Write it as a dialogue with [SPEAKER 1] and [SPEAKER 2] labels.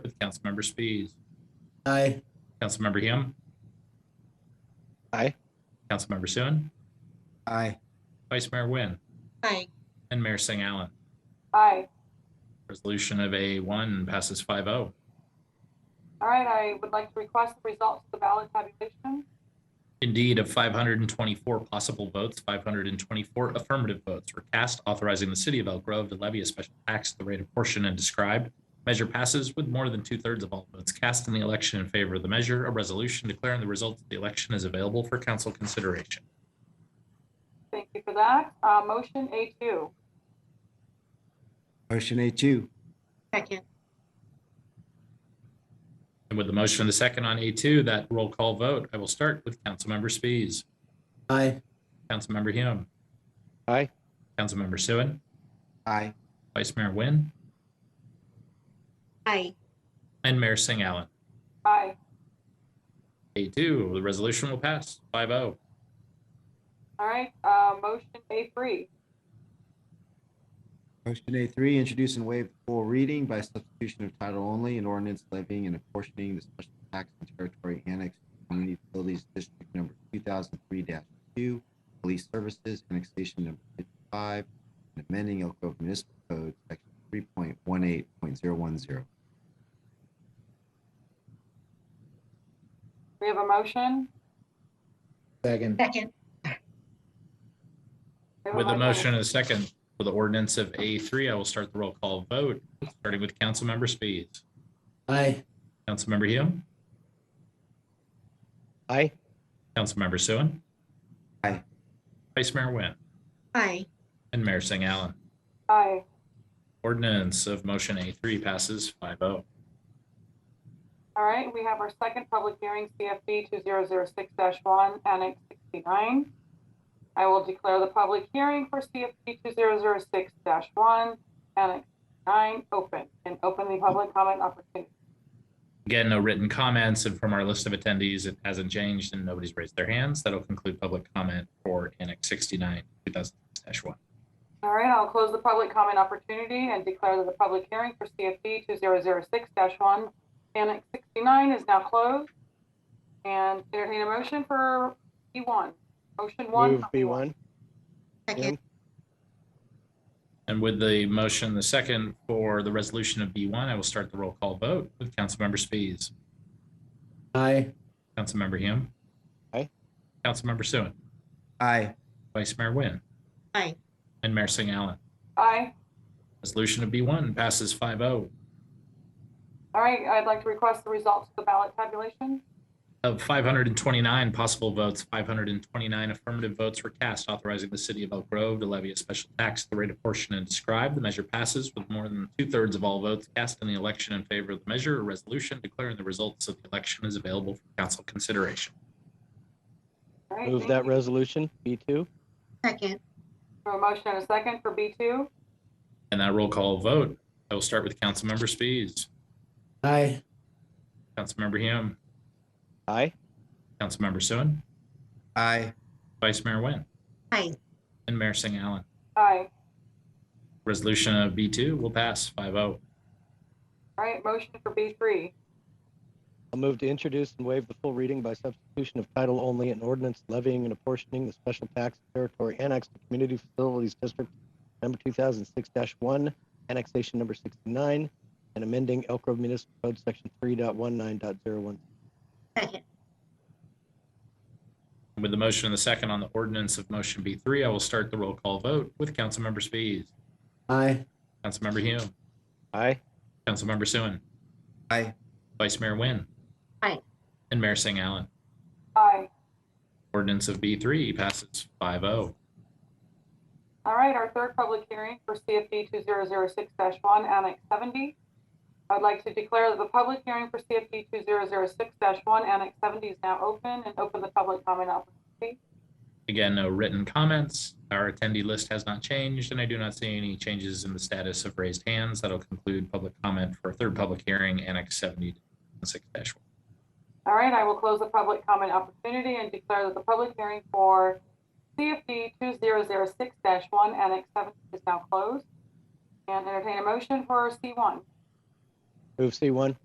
[SPEAKER 1] Councilmember Spies,
[SPEAKER 2] Aye.
[SPEAKER 1] Councilmember Hume.
[SPEAKER 3] Aye.
[SPEAKER 1] Councilmember Sue,
[SPEAKER 2] Aye.
[SPEAKER 1] Vice Mayor Wynne,
[SPEAKER 4] Aye.
[SPEAKER 1] and Mayor Singh Allen.
[SPEAKER 5] Aye.
[SPEAKER 1] Resolution of A1 passes oh. 5-0.
[SPEAKER 5] All right, I would like to request the results of the ballot tabulation.
[SPEAKER 1] Indeed, of 524 possible votes, 524 affirmative votes were cast authorizing the city of Elk Grove to levy a special tax at the rate of portion and described. Measure passes with more than two-thirds of all votes cast in the election in favor of the measure. A resolution declaring the results of the election is available for council consideration.
[SPEAKER 5] Thank you for that. Uh, motion A2.
[SPEAKER 2] Motion A2.
[SPEAKER 4] Second.
[SPEAKER 1] And with the motion and the second on A2, that roll call vote, I will start with Councilmember Spies,
[SPEAKER 2] Aye.
[SPEAKER 1] Councilmember Hume.
[SPEAKER 3] Aye.
[SPEAKER 1] Councilmember Sue,
[SPEAKER 2] Aye.
[SPEAKER 1] Vice Mayor Wynne,
[SPEAKER 4] Aye.
[SPEAKER 1] and Mayor Singh Allen.
[SPEAKER 5] Aye.
[SPEAKER 1] A2, the resolution will pass oh. 5-0.
[SPEAKER 5] All right, uh, motion A3.
[SPEAKER 2] Motion A3, introduce and waive the full reading by substitution of title only and ordinance levying and apportioning the special tax and territory annexed to Community Utilities District Number 2003-2, Police Services, Annexation Number 55, and amending Elk Grove Municipal Code, Section 3.18.010.
[SPEAKER 5] We have a motion.
[SPEAKER 6] Second.
[SPEAKER 4] Second.
[SPEAKER 5] We have a
[SPEAKER 1] With a motion and a second for the ordinance of A3, I will start the roll call vote, starting with Councilmember Spies,
[SPEAKER 2] Aye.
[SPEAKER 1] Councilmember Hume,
[SPEAKER 3] Aye.
[SPEAKER 1] Councilmember Sue.
[SPEAKER 2] Aye.
[SPEAKER 1] Vice Mayor Wynne
[SPEAKER 4] Aye.
[SPEAKER 1] and Mayor Singh Allen.
[SPEAKER 5] Aye.
[SPEAKER 1] Ordinance of motion A3 passes oh. 5-0.
[SPEAKER 5] All right, we have our second public hearing, CFD 2006-1, Annex 69. I will declare the public hearing for CFD 2006-1, Annex 9, open, and open the public comment opportunity.
[SPEAKER 1] Again, no written comments, and from our list of attendees, it hasn't changed and nobody's raised their hands. That'll conclude public comment for Annex 69, 2000-1.
[SPEAKER 5] All right, I'll close the public comment opportunity and declare that the public hearing for CFD 2006-1, Annex 69 is now closed. And entertain a motion for B1. Motion 1.
[SPEAKER 3] Move B1.
[SPEAKER 4] Second.
[SPEAKER 1] And with the motion, the second for the resolution of B1, I will start the roll call vote with Councilmember Spies,
[SPEAKER 2] Aye.
[SPEAKER 1] Councilmember Hume.
[SPEAKER 3] Aye.
[SPEAKER 1] Councilmember Sue,
[SPEAKER 2] Aye.
[SPEAKER 1] Vice Mayor Wynne.
[SPEAKER 4] Aye.
[SPEAKER 1] And Mayor Singh Allen.
[SPEAKER 5] Aye.
[SPEAKER 1] Resolution of B1 passes oh. 5-0.
[SPEAKER 5] All right, I'd like to request the results of the ballot tabulation.
[SPEAKER 1] Of 529 possible votes, 529 affirmative votes were cast authorizing the city of Elk Grove to levy a special tax at the rate of portion and described. The measure passes with more than two-thirds of all votes cast in the election in favor of the measure. A resolution declaring the results of the election is available for council consideration.
[SPEAKER 5] All right,
[SPEAKER 3] Move
[SPEAKER 5] thank
[SPEAKER 3] that
[SPEAKER 5] you.
[SPEAKER 3] resolution, B2.
[SPEAKER 4] Second.
[SPEAKER 5] For a motion and a second for B2.
[SPEAKER 1] And that roll call vote, I will start with Councilmember Spies,
[SPEAKER 2] Aye.
[SPEAKER 1] Councilmember Hume,
[SPEAKER 3] Aye.
[SPEAKER 1] Councilmember Sue.
[SPEAKER 2] Aye.
[SPEAKER 1] Vice Mayor Wynne.
[SPEAKER 4] Aye.
[SPEAKER 1] And Mayor Singh Allen.
[SPEAKER 5] Aye.
[SPEAKER 1] Resolution of B2 will pass oh. 5-0.
[SPEAKER 5] All right, motion for B3.
[SPEAKER 3] I'll move to introduce and waive the full reading by substitution of title only and ordinance levying and apportioning the special tax territory annexed to Community Facilities District number 2006-1, annexation number 69, and amending Elk Grove Municipal Code Section 3.19.01.
[SPEAKER 4] Second.
[SPEAKER 1] With the motion and the second on the ordinance of motion B3, I will start the roll call vote with Councilmember Spies,
[SPEAKER 2] Aye.
[SPEAKER 1] Councilmember Hume,
[SPEAKER 3] Aye.
[SPEAKER 1] Councilmember Sue.
[SPEAKER 2] Aye.
[SPEAKER 1] Vice Mayor Wynne.
[SPEAKER 4] Aye.
[SPEAKER 1] And Mayor Singh Allen.
[SPEAKER 5] Aye.
[SPEAKER 1] Ordinance of B3 passes oh. 5-0.
[SPEAKER 5] All right, our third public hearing for CFD 2006-1, Annex 70. I'd like to declare that the public hearing for CFD 2006-1, Annex 70 is now open and open the public comment opportunity.
[SPEAKER 1] Again, no written comments. Our attendee list has not changed, and I do not see any changes in the status of raised hands. That'll conclude public comment for a third public hearing, Annex 70 1.
[SPEAKER 5] All right, I will close the public comment opportunity and declare that the public hearing for CFD 2006-1 Annex 7 is now closed. And entertain a motion for C1.
[SPEAKER 3] Move C1.